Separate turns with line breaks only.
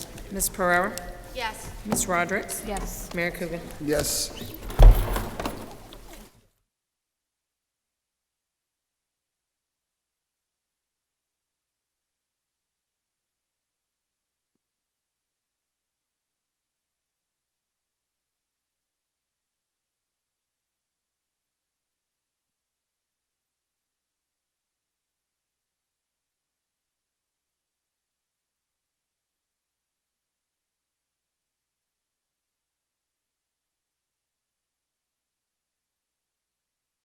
Ms. Pereira?
Yes.
Ms. Rodericks?
Yes.
Mayor Coogan?
Yes.